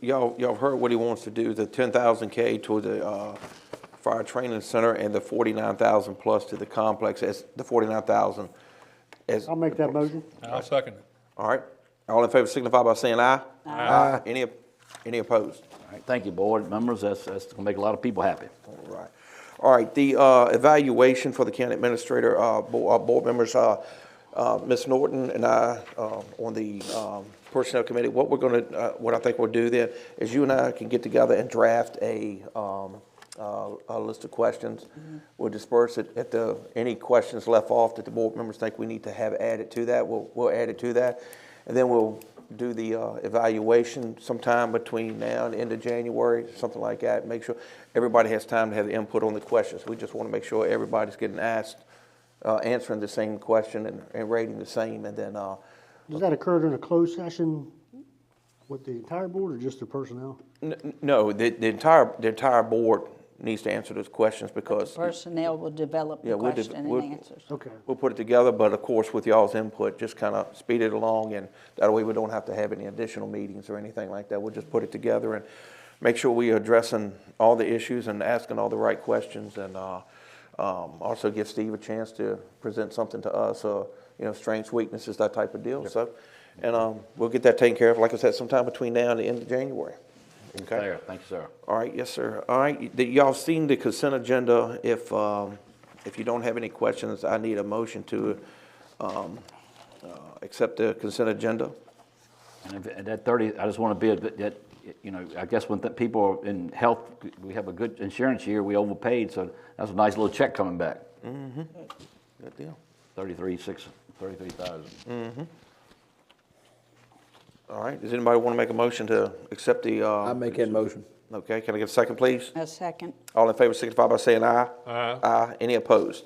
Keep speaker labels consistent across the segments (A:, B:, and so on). A: y'all, y'all heard what he wants to do, the ten thousand K to the, uh, fire training center and the forty-nine thousand plus to the complex, as, the forty-nine thousand as.
B: I'll make that motion.
C: I'll second it.
A: All right, all in favor signify by saying aye. Aye. Any, any opposed?
D: All right, Thank you, board members. That's, that's gonna make a lot of people happy.
A: All right. All right, the uh, evaluation for the county administrator, uh, bo- uh, board members, uh, uh, Ms. Norton and I um, on the um, Personnel Committee, what we're going to, what I think we'll do then is you and I can get together and draft a, um, uh, a list of questions. We'll disperse it at the, any questions left off that the board members think we need to have added to that, we'll, we'll add it to that. And then we'll do the uh, evaluation sometime between now and end of January, something like that. Make sure everybody has time to have input on the questions. We just want to make sure everybody's getting asked, uh, answering the same question and, and rating the same. And then, uh,
B: Does that occur during a closed session with the entire board or just the personnel?
A: n- n- no, the, the entire, the entire board needs to answer those questions because.
E: Personnel will develop
A: Yeah,
E: the
A: we'll de-
E: question
A: we'll-
E: and answers.
B: Okay. Uh,
A: We'll put it together, but of course, with y'all's input, just kind of speed it along, and that way we don't have to have any additional meetings or anything like that. We'll just put it together and make sure we are addressing all the issues and asking all the right questions, and uh, um, also give Steve a chance to present something to us, uh, you know, strengths, weaknesses, that type of deal, so. And um, we'll get that taken care of, like I said, sometime between now and the end of January. Okay.
D: There, thank you, sir.
A: All right, yes, sir. All right, y- y'all seen the consent agenda. If, um, if you don't have any questions, I need a motion to, um, uh, accept the consent agenda.
D: And if- and that 30, I just want to be, a bit- that, you know, I guess when th- people are in health, we have a good insurance year, we overpaid, so that's a nice little check coming back.
A: Good deal.
D: 33, 6, 33,000.
A: All right, does anybody want to make a motion to accept the, uh?
F: I make that motion.
A: Okay, can I get a second, please?
E: A second,
A: All in favor signify by saying aye.
C: Aye.
A: Aye. Any opposed?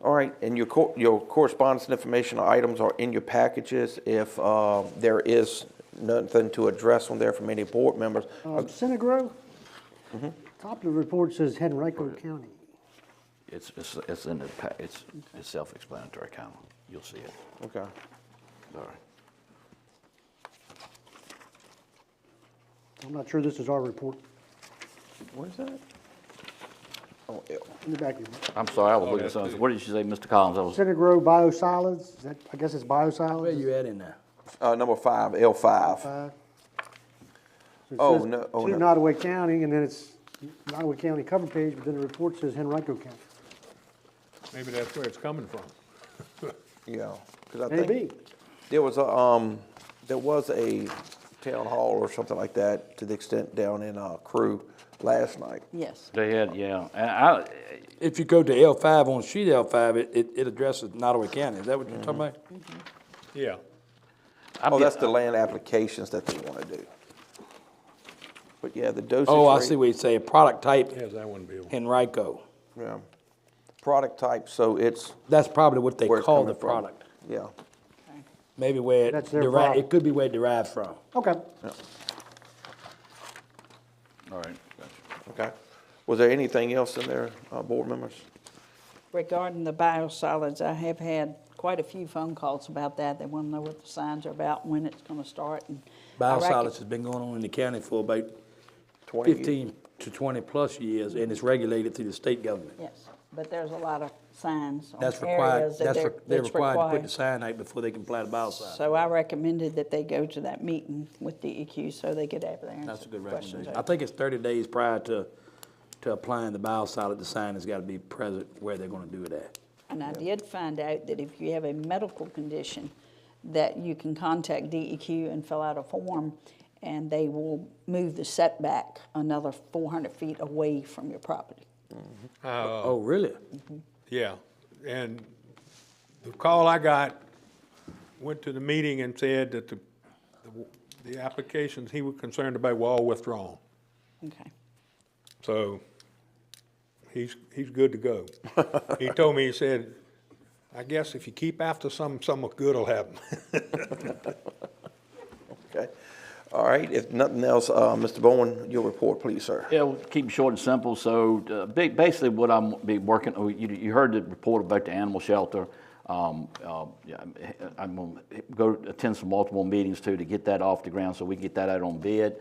A: All right, and your, cor- your correspondence and informational items are in your packages. If um, there is nothing to address on there from any board members,
B: Um, Center Grove?
A: Mm-hmm.
B: Top of the report says Henrico County.
D: It's, it's, it's in the, pa- it's, it's self-explanatory, kind of. You'll see it.
A: okay.
D: All right.
B: I'm not sure this is our report
A: What is that? Oh, yeah.
B: in the back. of it.
D: I'm sorry, I was
C: Oh,
D: looking at
C: that's
D: something.
C: good.
D: What did you say, Mr. Collins? I was,
B: Center Grove Biosolids, is that, I guess it's
F: Where
B: biosolids?
F: you at in there?
A: Uh, number five, L five.
B: Uh, so it
A: Oh,
B: says
A: no, oh,
B: To
A: no.
B: Nottaway County, and then it's Nottaway County cover page, but then the report says Henrico County.
C: Maybe that's where it's coming from.
A: Yeah, because I
B: Maybe.
A: think there was a, um, there was a town hall or something like that to the extent down in, uh, Crew last night.
E: yes.
D: they had, yeah. And I,
G: If you go to L five on sheet L five, it, it- it addresses Nottaway County. Is that what you're
D: Mm-hmm.
G: talking about?
C: Yeah.
D: I.
A: Oh, that's the land applications that they want to do. But yeah, the dosage.
G: Oh, I
A: rate-
G: see what you say, product type
C: Yes, that wouldn't be, a-
G: Henrico.
A: Yeah. Product type, so it's
G: That's probably what they
A: where it's
G: call
A: coming
G: the
A: from.
G: product.
A: Yeah.
G: Maybe where it
B: That's their
G: derived,
B: product.
G: it could be where it derived from.
B: Okay.
D: All right, gotcha.
A: Okay. Was there anything else in there, uh, board members?
E: Regarding the biosolids, I have had quite a few phone calls about that. They want to know what the signs are about, when it's going to start. and I reckon-
G: Biosolids has been going on in the county for about
A: 20 years.
G: fifteen to twenty-plus years, and it's regulated through the state government.
E: Yes, but there's a lot of signs on
G: That's required,
E: areas that
G: that's,
E: they're,
G: re- they're
E: that's
G: required to put the
E: required.
G: sign out before they can apply the biocide.
E: So I recommended that they go to that meeting with DEQ so they could have their answers.
G: That's a
E: questions
G: good recommendation.
E: answered.
G: I think it's thirty days prior to, to applying the biosolid, the sign has got to be present where they're gonna do it at.
E: And I did find out that if you have a medical condition, that you can contact DEQ and fill out a form, and they will move the setback another 400 feet away from your property.
G: Oh, really?
C: yeah. And the call I got, went to the meeting and said that the, the- the applications he was concerned about were all withdrawn.
E: Okay.
C: So he's, he's good to go. He told me, he said, I guess if you keep after some, some good will happen.
A: Okay. All right, if nothing else, uh, Mr. Bowen, your report, please, sir.
D: Yeah, we'll keep it short and simple. So uh, ba- basically what I'm be working, oh, you, you heard the report about the animal shelter. Um, uh, yeah, I'm- I'm going to go attend some multiple meetings too to get that off the ground so we can get that out on bid.